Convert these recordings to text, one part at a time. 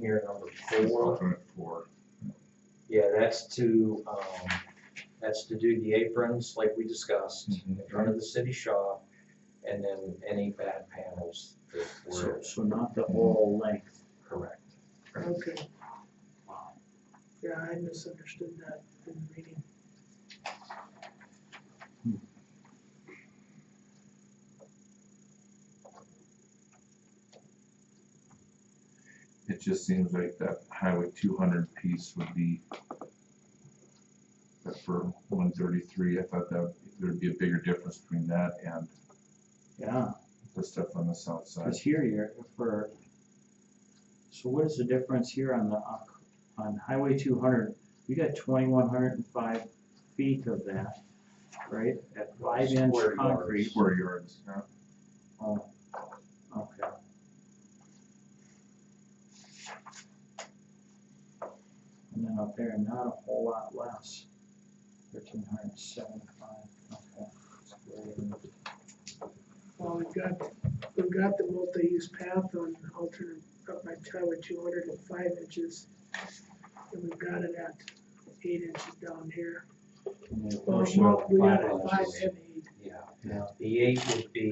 here, number It's four. alternate four. Yeah, that's to, um, that's to do the aprons like we discussed in front of the city shop. And then any bad panels that So, were so not the all length. correct. Okay, Wow. yeah, I misunderstood that in the reading. It just seems like that highway two hundred piece would be. But for one thirty-three, I thought that there'd be a bigger difference between that and Yeah, the stuff on the south side. because here you're for, so what is the difference here on the, uh, on Highway two hundred? You got twenty-one hundred and five feet of that, right? At five inch Square yards. concrete. Square yards, yeah. Oh, okay. And then up there, not a whole lot less, thirteen hundred and seventy-five, okay. That's great. Well, we've got, we've got the multi-use path on alternate, up by Tyler two hundred and five inches. And we've got it at eight inches down here. And then, of Well, course, you well, have we got five it at five inches. and eight. Yeah, Yeah. the eight would be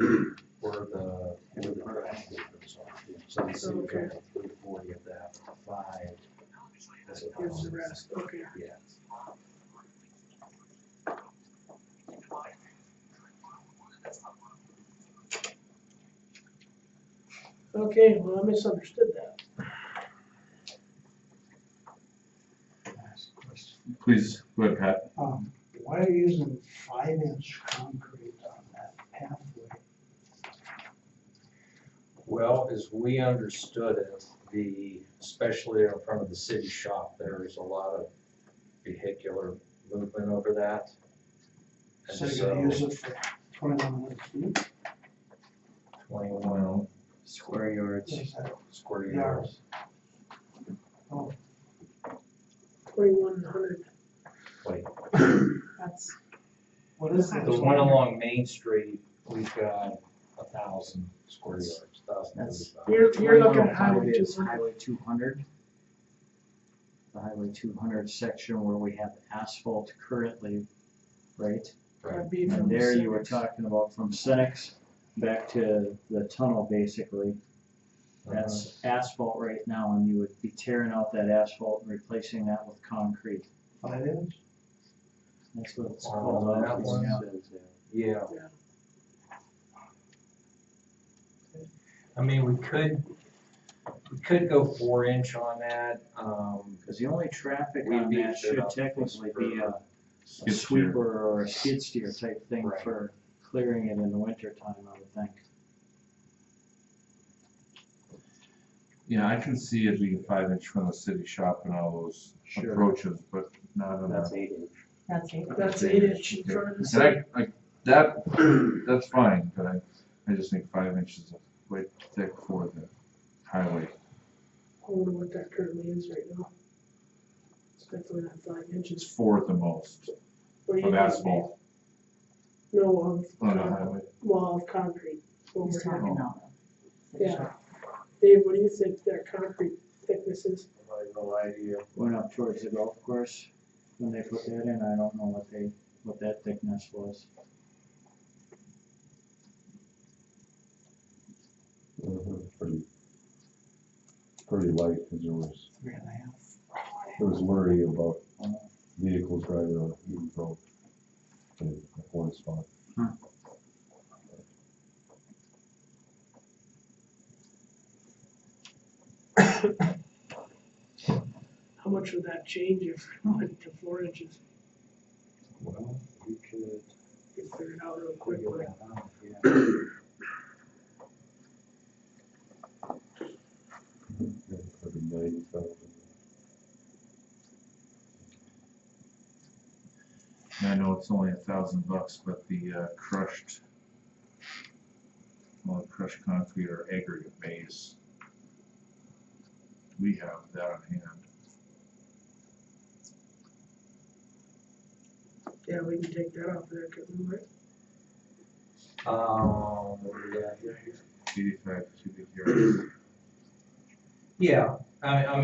where the, where the crack aprons are. So the city Oh, Okay. got three forty of that, five. as a Here's the balance. rest, okay. Yeah. Okay, well, I misunderstood that. Last question. Please, go ahead, Pat. Um, why are you using five inch concrete on that pathway? Well, as we understood it, the, especially in front of the city shop, there is a lot of vehicular movement over that. So And you're gonna use so it for twenty-one hundred feet, twenty-one Square yards. is that square yards. yards? Oh, Twenty-one hundred, Wait, that's, what is that? the one along Main Street, we've got a thousand square yards, thousand That's- thirty-five. you're, you're looking at 2105 highway two is hundred. Highway two hundred. The highway two hundred section where we have asphalt currently, right? That'd be from And there you were Senex. talking about from Senex back to the tunnel basically. That's Uh-huh. asphalt right now and you would be tearing out that asphalt and replacing that with concrete. Five inch? That's what it's Oh, called. that It's- one. it's, uh, Yeah. I mean, we could, we could go four inch on that, um, Cause the only traffic We on beefed that it should up technically for- be a a Skid steer. sweeper or a skid steer type thing Right. for clearing it in the winter time, I would think. Yeah, I can see it being five inch from the city shop and all those Sure. approaches, but not on That's that. eight inch. That's it. That's eight inch in front of the And city. I, I, that, that's fine, but I, I just think five inches is way thick for the highway. I wonder what that currently is right now. It's definitely not five It's inches. four at the most What do you of think, asphalt Dave? No, of, on the con- highway. well, of concrete. Well, He's we're- talking about. the Yeah. Dave, what do you think that concrete thickness is? I have no idea. Went up towards the golf course when they put that in, I don't know what they, what that thickness was. Pretty, pretty light, because there was, Three and a half. there was worry about Uh, vehicles driving on a Eaton Road in one spot. How much would that change if it went to four inches? Well, we could You Figure it out real quick. figure like, that out, yeah. Probably ninety thousand. And I know it's only a thousand bucks, but the uh, crushed, well, crushed concrete or aggregate base. We have that on hand. Yeah, we can take that off there, cause we might, Um, what do we got here? Eighty-five cubic yards. Yeah, I, I